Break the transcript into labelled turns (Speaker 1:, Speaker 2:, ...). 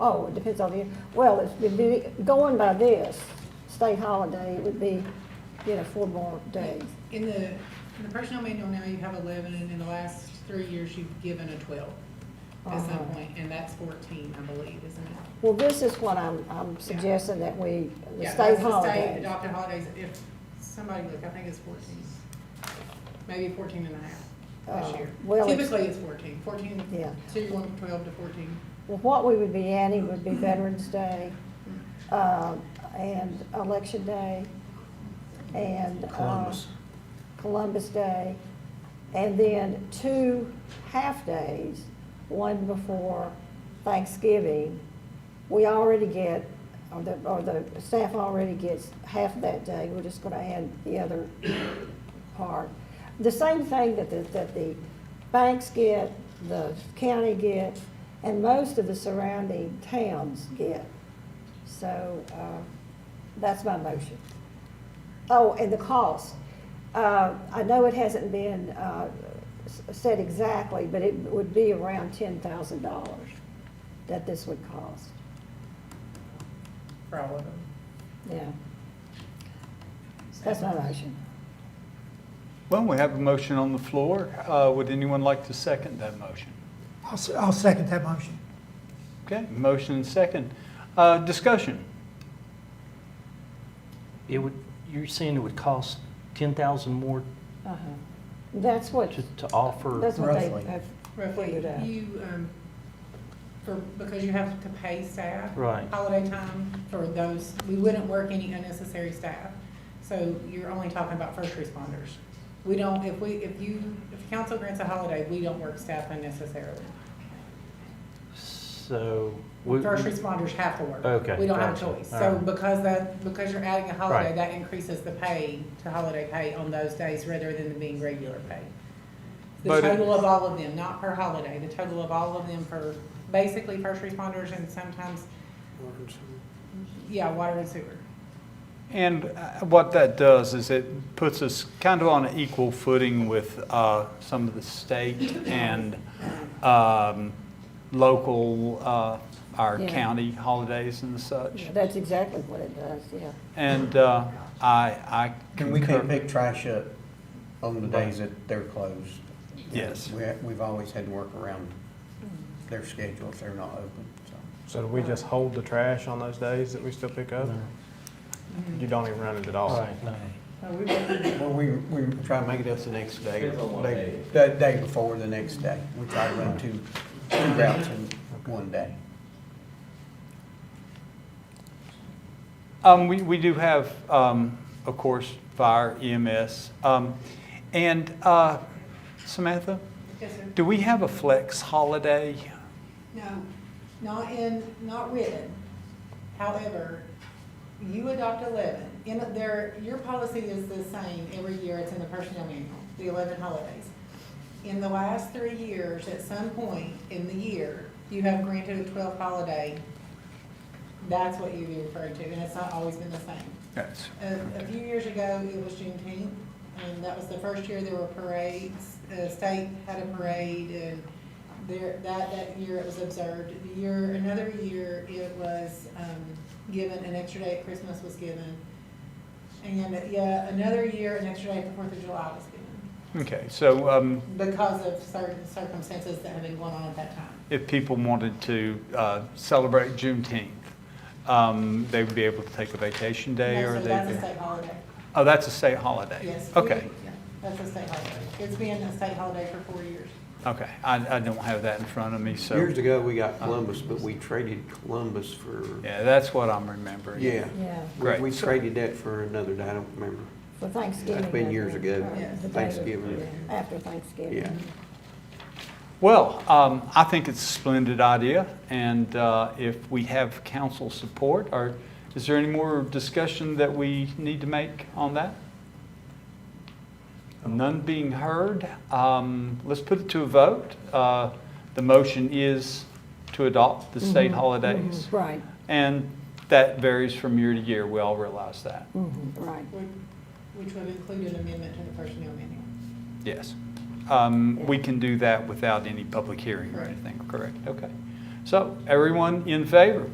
Speaker 1: Oh, it depends on the, well, it would be, going by this, state holiday, it would be, you know, four more days.
Speaker 2: In the, in the personnel manual now, you have eleven, and in the last three years, you've given a twelve at some
Speaker 1: Uh-huh.
Speaker 2: point, and that's fourteen, I believe, isn't it?
Speaker 1: Well, this is what I'm, I'm suggesting that we, the
Speaker 2: Yeah,
Speaker 1: state
Speaker 2: that's the state
Speaker 1: holiday.
Speaker 2: adopted holidays, if, somebody look, I think it's fourteen, maybe fourteen and a half
Speaker 1: Uh,
Speaker 2: this year.
Speaker 1: well, it's-
Speaker 2: Typically, it's fourteen, fourteen,
Speaker 1: Yeah.
Speaker 2: so you're going from twelve to fourteen.
Speaker 1: Well, what we would be adding would be Veterans Day,
Speaker 2: Mm.
Speaker 1: uh, and Election Day, and. uh,
Speaker 3: Columbus.
Speaker 1: Columbus Day, and then two half-days, one before Thanksgiving. We already get, or the, or the staff already gets half that day, we're just gonna add the other part. The same thing that the, that the banks get, the county get, and most of the surrounding towns get. So, uh, that's my motion. Oh, and the cost. Uh, I know it hasn't been uh, s- said exactly, but it would be around ten thousand dollars that this would cost,
Speaker 2: For all of them.
Speaker 1: yeah. That's my motion.
Speaker 4: Well, we have a motion on the floor. Uh, Would anyone like to second that motion?
Speaker 5: I'll, se- I'll second that motion.
Speaker 4: Okay, motion and second. Uh, Discussion.
Speaker 3: It would, you're saying it would cost ten thousand more
Speaker 1: Uh-huh. That's what,
Speaker 3: to, to offer?
Speaker 1: that's what they
Speaker 5: Roughly.
Speaker 1: have
Speaker 2: Roughly,
Speaker 1: figured out.
Speaker 2: you, um, for, because you have to pay staff.
Speaker 3: Right.
Speaker 2: Holiday time for those, we wouldn't work any unnecessary staff. So you're only talking about first responders. We don't, if we, if you, if council grants a holiday, we don't work staff unnecessarily.
Speaker 3: So. we-
Speaker 2: First responders have to work.
Speaker 3: Okay,
Speaker 2: We don't have a
Speaker 3: gotcha.
Speaker 2: choice.
Speaker 3: All
Speaker 2: So
Speaker 3: right.
Speaker 2: because that, because you're adding a holiday,
Speaker 3: Right.
Speaker 2: that increases the pay to holiday pay on those days rather than being regular pay. The
Speaker 4: But it-
Speaker 2: total of all of them, not per holiday, the total of all of them for basically first responders and sometimes, yeah, water and sewer.
Speaker 4: And uh, what that does is it puts us kind of on an equal footing with uh, some of the state and um, local, uh, our
Speaker 1: Yeah.
Speaker 4: county holidays and such.
Speaker 1: Yeah, That's exactly what it does, yeah.
Speaker 4: And uh, I, I
Speaker 6: Can we
Speaker 4: concur-
Speaker 6: can't pick trash up on the days that they're closed?
Speaker 4: Yes.
Speaker 6: We, we've always had to work around their schedule if they're not open, so.
Speaker 7: So do we just hold the trash on those days that we still pick up? You don't even run it at all?
Speaker 3: Right, no.
Speaker 6: Well, we, we try to make it up the next day.
Speaker 8: Depends on what
Speaker 6: day- The day before the next day. We try to run two, two routes in one day.
Speaker 4: Um, we, we do have, um, of course, fire, EMS. Um, and, uh, Samantha,
Speaker 2: Yes, sir.
Speaker 4: do we have a flex holiday?
Speaker 2: No, not in, not written. However, you adopt eleven, in there, your policy is the same every year, it's in the personnel manual, the eleven holidays. In the last three years, at some point in the year, you have granted a twelfth holiday. That's what you'd be referring to, and it's not always been the same.
Speaker 4: Yes.
Speaker 2: A, a few years ago, it was Juneteenth, and that was the first year there were parades. The state had a parade, and there, that, that year it was observed. The year, another year, it was, um, given, an extra day at Christmas was given. And, uh, yeah, another year, an extra day at the Fourth of July was given,
Speaker 4: Okay, so, um,
Speaker 2: because of certain circumstances that had been going on at that time.
Speaker 4: if people wanted to, uh, celebrate Juneteenth, um, they would be able to take a vacation day or
Speaker 2: And so
Speaker 4: they?
Speaker 2: That's a state holiday,
Speaker 4: Oh, that's a state holiday?
Speaker 2: yes.
Speaker 4: Okay,
Speaker 2: Yeah, That's a state holiday. It's been a state holiday for four years.
Speaker 4: okay. I, I don't have that in front of me, so. Uh,
Speaker 9: Years ago, we got Columbus, but we traded Columbus for,
Speaker 4: Yeah, that's what I'm remembering.
Speaker 9: yeah.
Speaker 1: Yeah,
Speaker 9: We-
Speaker 4: Great.
Speaker 9: We traded that for another day, I don't remember.
Speaker 1: for Thanksgiving.
Speaker 9: That's been
Speaker 1: I
Speaker 9: years
Speaker 1: think,
Speaker 9: ago,
Speaker 1: or the day of-
Speaker 9: Thanksgiving.
Speaker 1: yeah, After Thanksgiving. Mm-hmm.
Speaker 9: Yeah.
Speaker 4: Well, um, I think it's a splendid idea, and uh, if we have council support, or is there any more discussion that we need to make on that? None being heard, um, let's put it to a vote. Uh, The motion is to adopt the state holidays,
Speaker 1: Mhm, Right,
Speaker 4: and that varies from year to year, we all realize that,
Speaker 1: mhm, right.
Speaker 2: Would- Which would include an amendment to the personnel manual.
Speaker 4: yes. Um, We can do that without any public hearing or
Speaker 2: Correct.
Speaker 4: anything, correct? Okay. So everyone in favor,